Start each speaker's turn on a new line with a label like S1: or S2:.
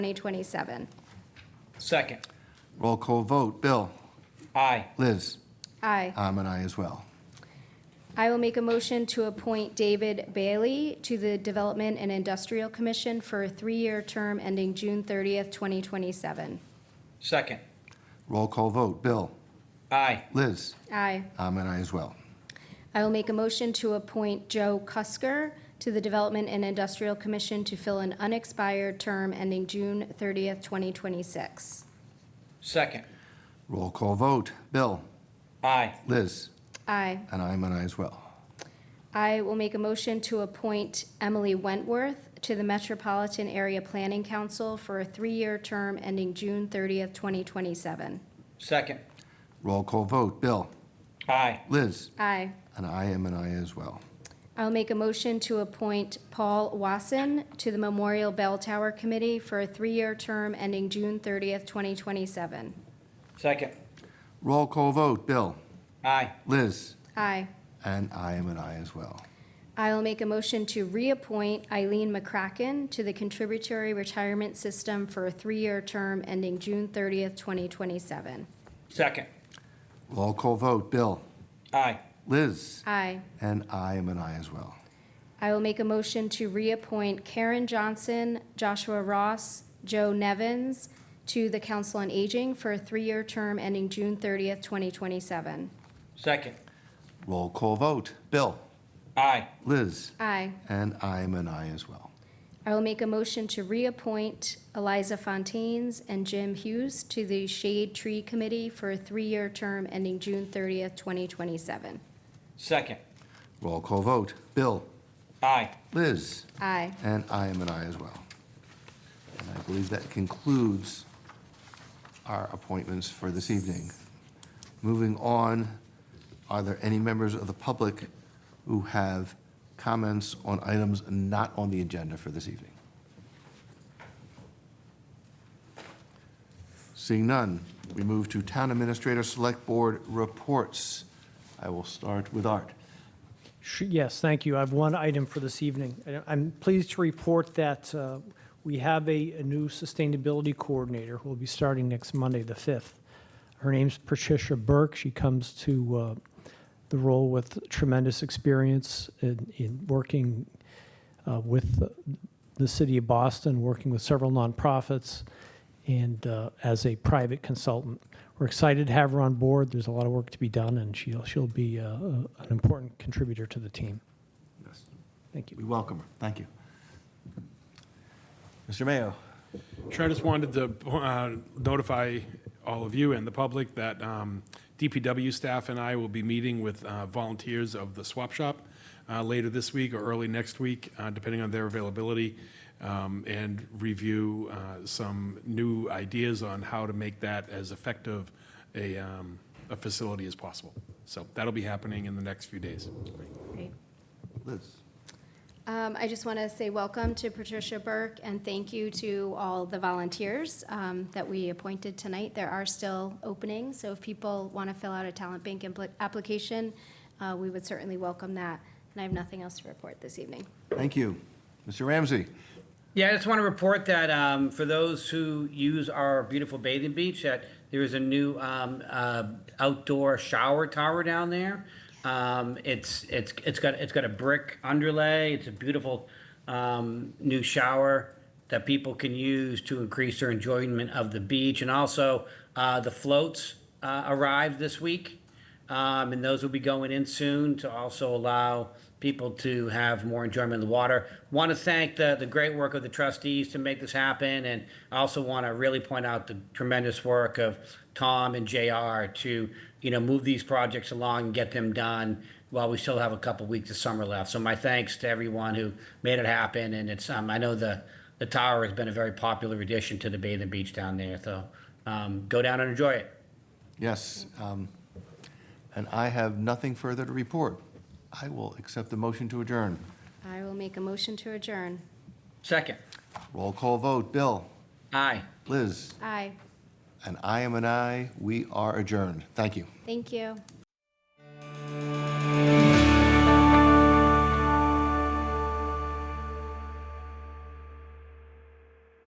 S1: 2027.
S2: Second.
S3: Roll call vote, Bill,
S2: Aye.
S3: Liz,
S1: Aye.
S3: I'm an aye as well.
S1: I will make a motion to appoint David Bailey to the Development and Industrial Commission for a three-year term ending June 30th, 2027.
S2: Second.
S3: Roll call vote, Bill,
S2: Aye.
S3: Liz,
S1: Aye.
S3: I'm an aye as well.
S1: I will make a motion to appoint Joe Cusker to the Development and Industrial Commission to fill an unexpired term ending June 30th, 2026.
S2: Second.
S3: Roll call vote, Bill,
S2: Aye.
S3: Liz,
S1: Aye.
S3: and I'm an aye as well.
S1: I will make a motion to appoint Emily Wentworth to the Metropolitan Area Planning Council for a three-year term ending June 30th, 2027.
S2: Second.
S3: Roll call vote, Bill,
S2: Aye.
S3: Liz,
S1: Aye.
S3: and I am an aye as well.
S1: I'll make a motion to appoint Paul Wasson to the Memorial Bell Tower Committee for a three-year term ending June 30th, 2027.
S2: Second.
S3: Roll call vote, Bill,
S2: Aye.
S3: Liz,
S1: Aye.
S3: and I am an aye as well.
S1: I will make a motion to reappoint Eileen McCracken to the Contributory Retirement System for a three-year term ending June 30th, 2027.
S2: Second.
S3: Roll call vote, Bill,
S2: Aye.
S3: Liz,
S1: Aye.
S3: and I am an aye as well.
S1: I will make a motion to reappoint Karen Johnson, Joshua Ross, Joe Nevins to the Council on Aging for a three-year term ending June 30th, 2027.
S2: Second.
S3: Roll call vote, Bill,
S2: Aye.
S3: Liz,
S1: Aye.
S3: and I am an aye as well.
S1: I will make a motion to reappoint Eliza Fontaines and Jim Hughes to the Shade Tree Committee for a three-year term ending June 30th, 2027.
S2: Second.
S3: Roll call vote, Bill,
S2: Aye.
S3: Liz,
S1: Aye.
S3: And I am an aye as well. And I believe that concludes our appointments for this evening. Moving on, are there any members of the public who have comments on items not on the agenda for this evening? Seeing none, we move to Town Administrator Select Board reports. I will start with Art.
S4: Sh- Yes, thank you. I have one item for this evening. I- I'm pleased to report that uh, we have a a new sustainability coordinator who will be starting next Monday, the 5th. Her name's Patricia Burke. She comes to uh, the role with tremendous experience in- in working uh, with the- the city of Boston, working with several nonprofits, and uh, as a private consultant. We're excited to have her on board. There's a lot of work to be done, and she'll, she'll be uh, an important contributor to the team. Thank you.
S3: We welcome her. Thank you. Mr. Mayo?
S5: Sure, I just wanted to uh, notify all of you and the public that um, DPW staff and I will be meeting with uh, volunteers of the swap shop uh, later this week or early next week, uh, depending on their availability, um, and review uh, some new ideas on how to make that as effective a um, a facility as possible. So that'll be happening in the next few days.
S1: Great.
S3: Liz?
S1: Um, I just want to say welcome to Patricia Burke and thank you to all the volunteers um, that we appointed tonight. There are still openings, so if people want to fill out a talent bank impl- application, uh, we would certainly welcome that. And I have nothing else to report this evening.
S3: Thank you. Mr. Ramsey?
S2: Yeah, I just want to report that um, for those who use our beautiful bathing beach, that there is a new um, uh, outdoor shower tower down there. Um, it's it's it's got it's got a brick underlay. It's a beautiful um, new shower that people can use to increase their enjoyment of the beach, and also uh, the floats uh, arrived this week. Um, and those will be going in soon to also allow people to have more enjoyment of the water. Want to thank the, the great work of the trustees to make this happen. And I also want to really point out the tremendous work of Tom and JR to, you know, move these projects along and get them done while we still have a couple weeks of summer left. So my thanks to everyone who made it happen. And it's, um, I know the, the tower has been a very popular addition to the bathing beach down there. So, um, go down and enjoy it.
S3: Yes. um, And I have nothing further to report. I will accept the motion to adjourn.
S1: I will make a motion to adjourn.
S2: Second.
S3: Roll call vote, Bill,
S2: Aye.
S3: Liz,
S1: Aye.
S3: and I am an aye. We are adjourned. Thank you.
S1: Thank you.